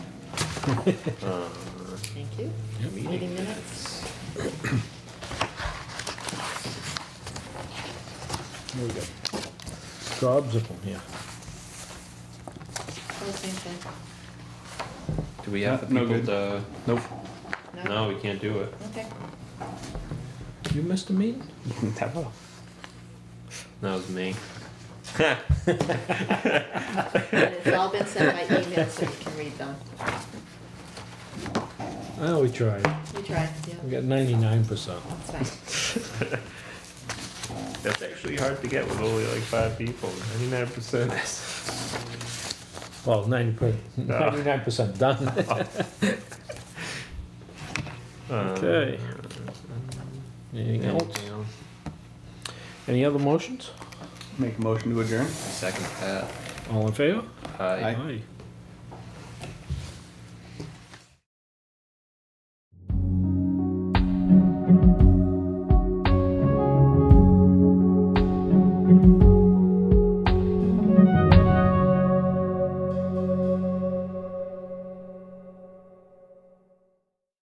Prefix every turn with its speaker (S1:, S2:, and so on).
S1: Uh,
S2: Thank you.
S3: Yep.
S2: Meeting minutes.
S3: There we go. Gobs of them here.
S2: Oh, same thing.
S1: Do we have the
S4: No
S1: people
S4: good.
S1: to,
S4: Nope.
S1: no, we can't do it.
S2: Okay.
S3: You missed a meeting?
S4: Never.
S1: That was me.
S2: And it's all been sent by email, so you can read them.
S3: Oh, we tried.
S2: You tried,
S3: We
S2: yeah.
S3: got ninety-nine percent.
S2: That's fine.
S1: That's actually hard to get with only like five people, ninety-nine percent.
S3: Well, ninety per, ninety-nine percent done.
S1: Um,
S3: Okay. Anything else? Any other motions?
S4: Make a motion to adjourn.
S1: Second that.
S3: All in favor?
S1: Aye.
S4: Aye.